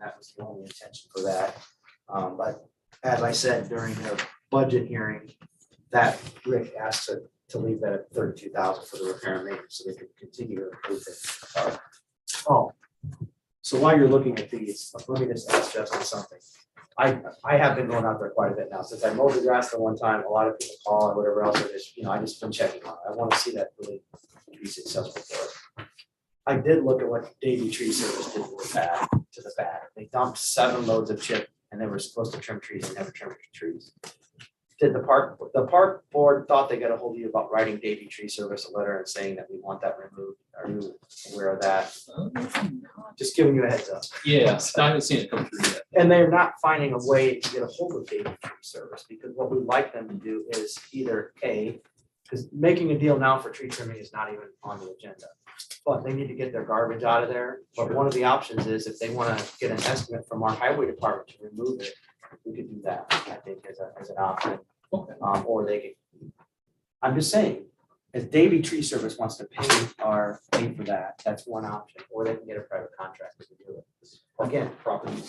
that was the only intention for that. Um, but as I said during the budget hearing, that Rick asked to, to leave that at thirty-two thousand for the repair and maintenance, so they could continue to improve it. Oh, so while you're looking at these, let me just ask Justin something. I, I have been going out there quite a bit now, since I mowed the grass the one time, a lot of people call and whatever else, I just, you know, I just been checking on, it. I wanna see that really be successful for us. I did look at what Davy Tree Service did with that, to the back, they dumped seven loads of chip, and they were supposed to trim trees, and never trimmed trees. Did the park, the park board thought they got a hold of you about writing Davy Tree Service a letter and saying that we want that removed, are you aware of that? Just giving you a heads up. Yeah, I haven't seen it come through yet. And they're not finding a way to get a hold of Davy Tree Service, because what we'd like them to do is either A, because making a deal now for tree trimming is not even on the agenda. But they need to get their garbage out of there, but one of the options is if they wanna get an estimate from our highway department to remove it, we could do that, I think, as a, as an option. Okay. Um, or they could, I'm just saying, if Davy Tree Service wants to pay our, pay for that, that's one option, or they can get a private contractor to do it. Again, property,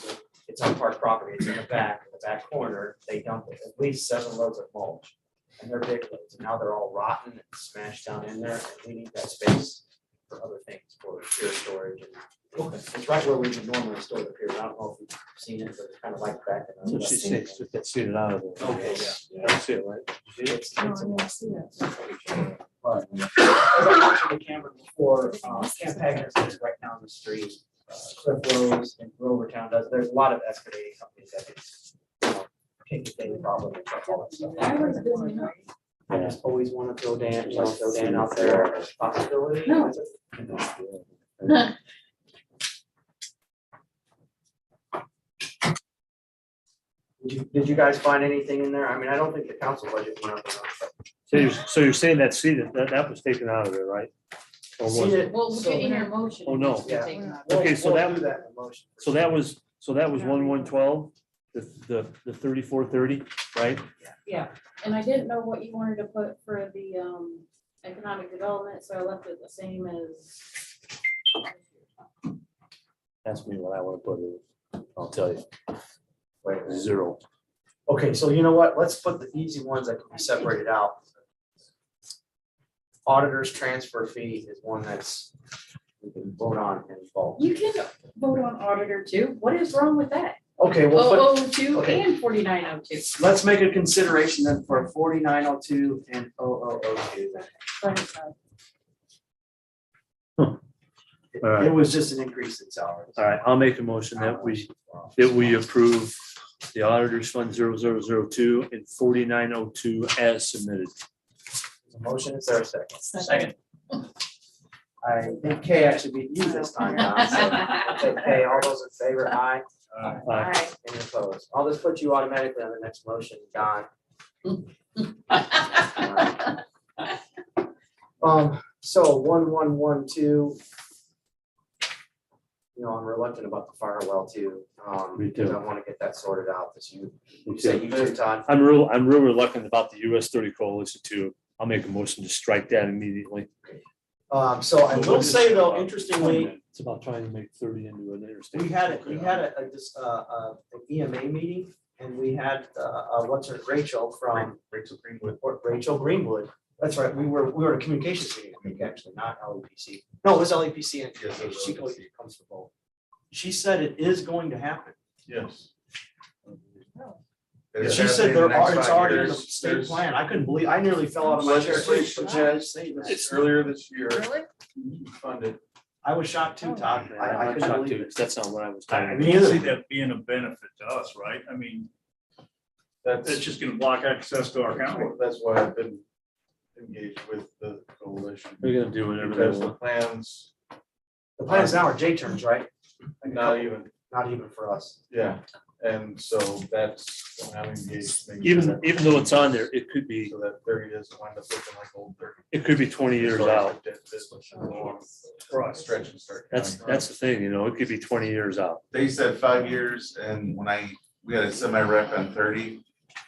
it's on park property, it's in the back, in the back corner, they dump it, at least seven loads of mulch. And they're big loads, and now they're all rotten and smashed down in there, and we need that space for other things, for pure storage and. It's right where we would normally store the pier, I don't know if you've seen it, but it's kind of like back. in the- So she says just get seated out of there. Okay, yeah. That's it, right? It's- it's a Well, But as I mentioned to Cameron before, um, Camp Agnes is right down the street. uh, Cliff Rose and Grover Town does, there's a lot of excavating companies that can, you know, take the same problem and check all that stuff. I just always want to throw Dan, just throw Dan out there as a possibility. No. Did you, did you guys find anything in there? I mean, I don't think the council budget went up enough. but- So you're, so you're saying that seated, that, that was taken out of there, right? Or was See, it? we're getting your motion. Oh, no. Yeah. Okay, we'll- so we'll that- do that in the motion. So that was, so that was one, one, twelve, the, the, the thirty-four, thirty, right? Yeah, and I didn't know what you wanted to put for the um economic development, so I left it the same as. Ask me what I wanna put in. I'll tell you, Wait a minute. zero. Okay, so you know what? Let's put the easy ones that can be separated out. Auditor's transfer fee is one that's, we can vote on and vote. You can vote on auditor too. What is wrong with that? Okay, well, but Oh, oh, two okay. and forty-nine oh two. let's make a consideration then for forty-nine oh two and 0002. then. It- All right. It was just an increase in salaries. All right, I'll make a motion that we, that we approve the auditor's fund zero, zero, zero, two and forty-nine oh two as submitted. There's a Motion, is there a second? Second. I think Kay actually beat you this time around, so. I'll take Kay, all those in favor, aye. Aye. Alright. Any opposed? I'll just put you automatically on the next motion, Don. Um, so one, one, one, two. You know, I'm reluctant about the fire well too. um, Me too. because I want to get that sorted out this year. You say you too, Todd? I'm real, I'm real reluctant about the US thirty coalition too. I'll make a motion to strike that immediately. Um, so I will say though, interestingly, It's about trying to make thirty into an interstate. We had, it. we had a, a, dis- uh, uh, an EMA meeting, and we had, uh, uh, what's her, Rachel from. Rachel Greenwood. Rachel Greenwood, that's right, we were, we were at a communications meeting, I think, actually, not LEPC, no, it was E LEPC and communications, she goes- comes from both. She said it is going to happen, Yes. she said there are, it's already in the state plan, I couldn't believe, I nearly fell out of my chair. Legislation. Judge, saying that. It's earlier this year Really? funded. I was shocked too, Todd, I, I I'm couldn't shocked believe too, it. That's not what I was I talking Me can either. see that being a benefit to us, right? I mean, it's That's, just gonna block access to our county. that's why I've been engaged with the coalition. They're gonna do whatever they Because the want. plans, The plans now are J terms, right? not even, Not even for us. yeah, and so that's, why I'm engaged. making sure Even, that- even though it's on there, it could be, So that thirty doesn't wind up looking like old thirty. it could be twenty years out. Oh, For us. Stretch and start. That's, that's the thing, you know, it could be twenty years out. they said five years, and when I, we had a semi rep on thirty,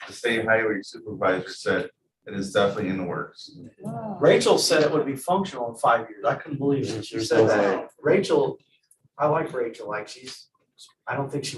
the state highway supervisor said it is definitely in the works. Rachel said it would be functional in five years. I couldn't believe it. She There's said no that. Rachel, I like Rachel, like she's, I don't think she